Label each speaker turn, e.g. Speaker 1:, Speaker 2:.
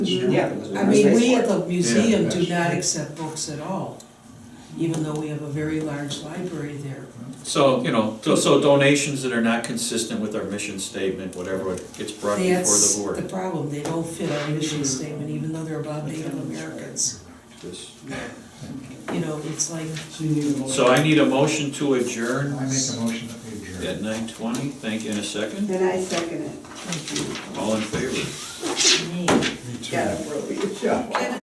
Speaker 1: Yeah,
Speaker 2: I mean, we at
Speaker 1: have.
Speaker 2: the museum do
Speaker 3: Yeah.
Speaker 2: not accept books at all, even though we have a very large library there.
Speaker 4: So, you know, so- so donations that are not consistent with our mission statement, whatever it gets brought before the
Speaker 2: That's the
Speaker 4: board.
Speaker 2: problem, they don't fit our mission statement, even though they're about Native Americans.
Speaker 4: This-
Speaker 2: You know, it's like,
Speaker 4: So I need a motion to adjourn
Speaker 3: I make a motion that we adjourn.
Speaker 4: at nine twenty, thank you, in a second,
Speaker 1: And I second it.
Speaker 4: all in favor?
Speaker 1: Yeah, bro, you shot.